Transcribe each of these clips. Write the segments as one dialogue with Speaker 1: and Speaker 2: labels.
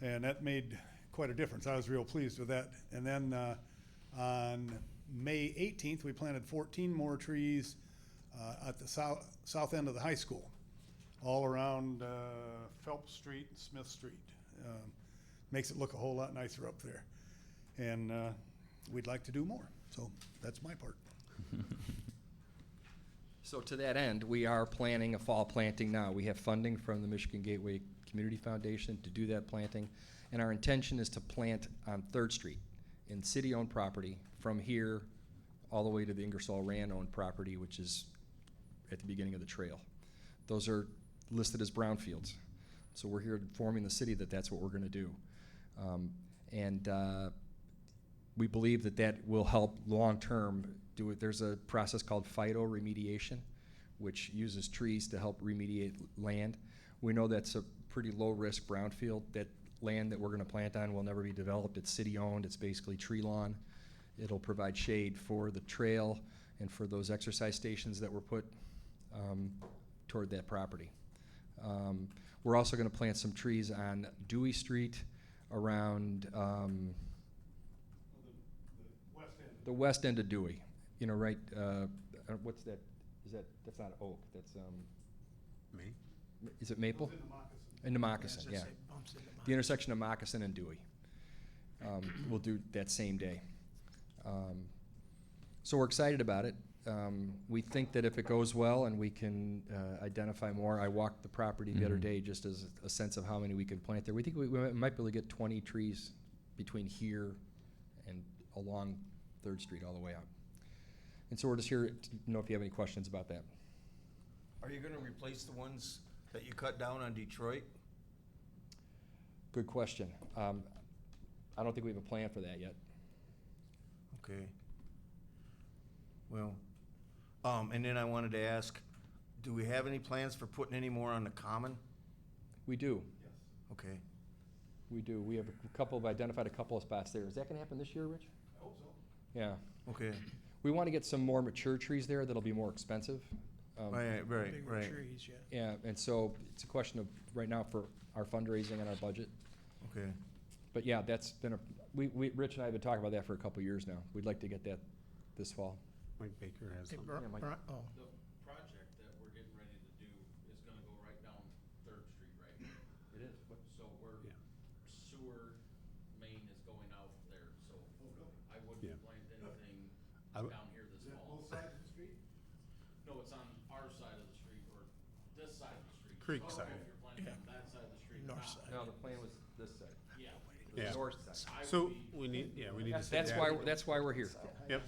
Speaker 1: and that made quite a difference. I was real pleased with that. And then uh, on May 18th, we planted 14 more trees uh, at the south south end of the high school, all around uh, Phelps Street, and Smith Street. Um, makes it look a whole lot nicer up there, and uh, we'd like to do more. So that's my part.
Speaker 2: So to that end, we are planning a fall planting now. We have funding from the Michigan Gateway Community Foundation to do that planting. And our intention is to plant on Third Street in city-owned property from here all the way to the Ingersoll Rand owned property, which is at the beginning of the trail. Those are listed as brownfields. So we're here informing the city that that's what we're gonna do. Um, and, uh, we believe that that will help long-term do it. There's a process called phytoremediation, which uses trees to help remediate land. We know that's a pretty low-risk brownfield. That land that we're gonna plant on will never be developed. It's city-owned. It's basically tree lawn. It'll provide shade for the trail and for those exercise stations that were put um, toward that property. Um, We're also gonna plant some trees on Dewey Street around, um, the west end of Dewey, you know, right, uh, uh, what's that, is that, that's not oak, that's, um,
Speaker 3: Me?
Speaker 2: m- is it maple? In the moccasin, yeah. The intersection of moccasin and Dewey. Um, we'll do that same day. Um, so we're excited about it. Um, we think that if it goes well and we can uh, identify more, I walked the property the other
Speaker 4: Mhm.
Speaker 2: day just as a sense of how many we can plant there. We think we, we might be able to get 20 trees between here and along Third Street all the way out. And so we're just here to know if you have any questions about that.
Speaker 3: Are you gonna replace the ones that you cut down on Detroit?
Speaker 2: Good question. Um, I don't think we have a plan for that yet.
Speaker 3: Okay. Well, um, and then I wanted to ask, do we have any plans for putting any more on the common?
Speaker 2: We do.
Speaker 3: Okay.
Speaker 2: We do. We have a couple, of identified a couple of spots there. Is that gonna happen this year, Rich?
Speaker 1: I hope so.
Speaker 2: Yeah.
Speaker 3: Okay,
Speaker 2: We wanna get some more mature trees there that'll be more expensive. Um,
Speaker 3: right, right,
Speaker 5: Bigger
Speaker 3: right,
Speaker 5: trees, yeah.
Speaker 2: Yeah, and so it's a question of, right now, for our fundraising and our budget.
Speaker 3: okay.
Speaker 2: But yeah, that's been a, we, we, Rich and I have been talking about that for a couple of years now. We'd like to get that this fall.
Speaker 4: Mike Baker has
Speaker 5: Hey,
Speaker 4: something.
Speaker 5: Bri-
Speaker 2: Yeah, Mike.
Speaker 5: Bri- oh,
Speaker 6: The project that we're getting ready to do is gonna go right down Third Street, right? It is. So we're,
Speaker 4: Yeah.
Speaker 6: sewer main is going out there, so I
Speaker 4: Yeah.
Speaker 6: wouldn't plant anything
Speaker 4: I w-
Speaker 6: down here this fall. No, it's on our side of the street or this side of the street. So I
Speaker 4: Creek
Speaker 6: don't know
Speaker 4: side.
Speaker 6: If you're planting on that side of the street or
Speaker 5: North
Speaker 6: not.
Speaker 5: side.
Speaker 2: No, the plan was this side,
Speaker 6: Yeah.
Speaker 4: Yeah.
Speaker 2: north side.
Speaker 6: I would
Speaker 4: So
Speaker 6: be-
Speaker 4: we need, yeah, we need to. sit
Speaker 2: That's
Speaker 4: down.
Speaker 2: why, that's why we're here.
Speaker 4: Yep.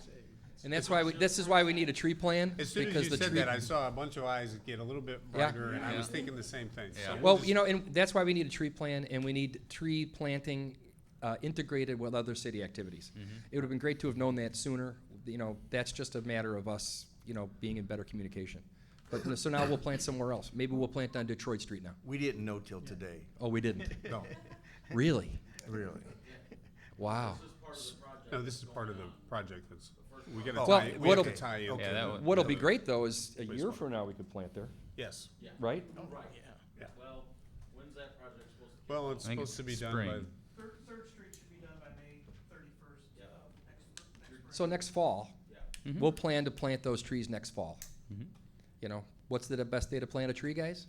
Speaker 2: And that's why, we this is why we need a tree plan.
Speaker 4: As soon as
Speaker 2: because
Speaker 4: you
Speaker 2: the
Speaker 4: said
Speaker 2: tree-
Speaker 4: that, I saw a bunch of eyes get a little bit brighter, and I was thinking the same thing. So we'll
Speaker 2: Well,
Speaker 4: just-
Speaker 2: you know, and that's why we need a tree plan, and we need tree planting uh, integrated with other city activities. It would have been great to have known that sooner. You know, that's just a matter of us, you know, being in better communication. But so now we'll plant somewhere else. Maybe we'll plant on Detroit Street now.
Speaker 3: We didn't know till today.
Speaker 2: Oh, we didn't.
Speaker 4: No,
Speaker 2: really?
Speaker 3: Really?
Speaker 2: Wow.
Speaker 6: This is part of the project.
Speaker 4: no, this is
Speaker 6: that's going
Speaker 4: part of the
Speaker 6: on.
Speaker 4: project that's, we gotta
Speaker 3: Oh,
Speaker 2: Well,
Speaker 4: tie, we have
Speaker 2: what'll-
Speaker 4: to tie in.
Speaker 3: okay. Yeah, that one-
Speaker 2: What'll be great though is a year
Speaker 4: Wastewater.
Speaker 2: from now we could plant there,
Speaker 4: Yes,
Speaker 6: Yeah.
Speaker 2: right?
Speaker 6: Oh, Right,
Speaker 4: Yeah.
Speaker 6: yeah. Well, when's that project supposed to? kick
Speaker 4: well,
Speaker 6: off?
Speaker 4: it's
Speaker 7: I think
Speaker 4: supposed
Speaker 7: it's
Speaker 4: to be done by,
Speaker 7: spring.
Speaker 5: Third, Third Street should be done by May thirty-first,
Speaker 6: Yeah.
Speaker 5: next,
Speaker 2: So next fall,
Speaker 6: Yeah.
Speaker 2: we'll plan to plant those trees next fall.
Speaker 7: Mhm.
Speaker 2: You know, what's the best day to plant a tree, guys?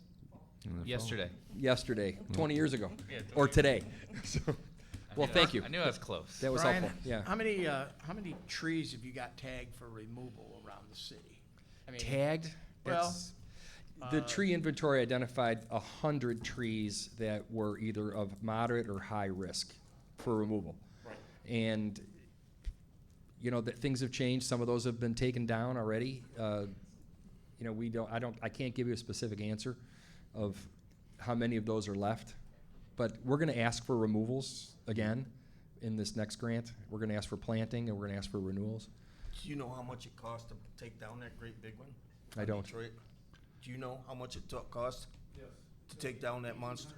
Speaker 7: Yesterday.
Speaker 2: yesterday, 20 years ago, or today. So,
Speaker 7: I
Speaker 2: well,
Speaker 7: knew-
Speaker 2: thank you.
Speaker 7: I knew I was close.
Speaker 2: That was
Speaker 5: Brian,
Speaker 2: helpful. Yeah.
Speaker 5: How many, uh, how many trees have you got tagged for removal around the city? I mean,
Speaker 2: Tagged.
Speaker 5: Well,
Speaker 2: that's- the
Speaker 5: uh,
Speaker 2: tree inventory identified 100 trees that were either of moderate or high risk for removal.
Speaker 5: Right.
Speaker 2: And you know that things have changed. Some of those have been taken down already. Uh, you know, we don't. I don't. I can't give you a specific answer of how many of those are left. But we're going to ask for removals again in this next grant. We're going to ask for planting and we're going to ask for renewals.
Speaker 3: Do you know how much it cost to take down that great big one?
Speaker 2: I don't.
Speaker 3: Detroit? Do you know how much it took, cost to take down that monster?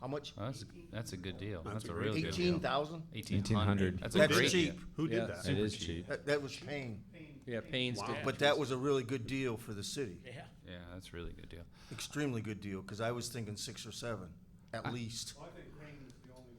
Speaker 3: How much?
Speaker 7: Well, that's, a, that's a good deal. That's,
Speaker 4: a
Speaker 7: a
Speaker 4: great
Speaker 7: real good
Speaker 3: Eighteen
Speaker 7: deal.
Speaker 3: thousand?
Speaker 7: 1800. That's a
Speaker 3: That's
Speaker 7: great
Speaker 3: cheap.
Speaker 7: deal.
Speaker 4: who
Speaker 2: Yeah.
Speaker 4: did that?
Speaker 7: It is cheap.
Speaker 3: That, that was pain,
Speaker 2: Yeah, Payne's
Speaker 4: Wow.
Speaker 2: did.
Speaker 3: but that was a really good deal for the city.
Speaker 5: Yeah.
Speaker 7: Yeah, that's a really good deal.
Speaker 3: Extremely good deal, because I was thinking six or seven, at least.
Speaker 1: Well, I think